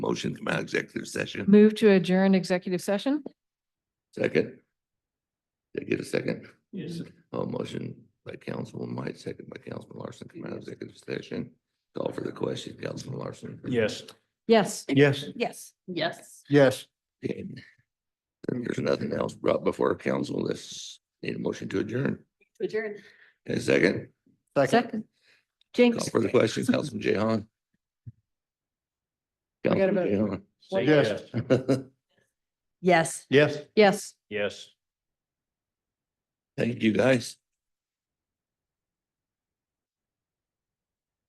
motion, come out of executive session. Move to adjourn executive session? Second. Did I get a second? Yes. Oh, motion by Councilman White, second by Councilman Larson, come out of executive session. Call for the question, Councilman Larson. Yes. Yes. Yes. Yes. Yes. Yes. Okay. Then There's nothing else brought before council. Let's need a motion to adjourn. To adjourn. And a second, Second. call Jinx. for the question, Councilman Jehan. Forget about it. Councilman Say Yes. Jehan. Yes. Yes. Yes. Yes. Thank you, guys.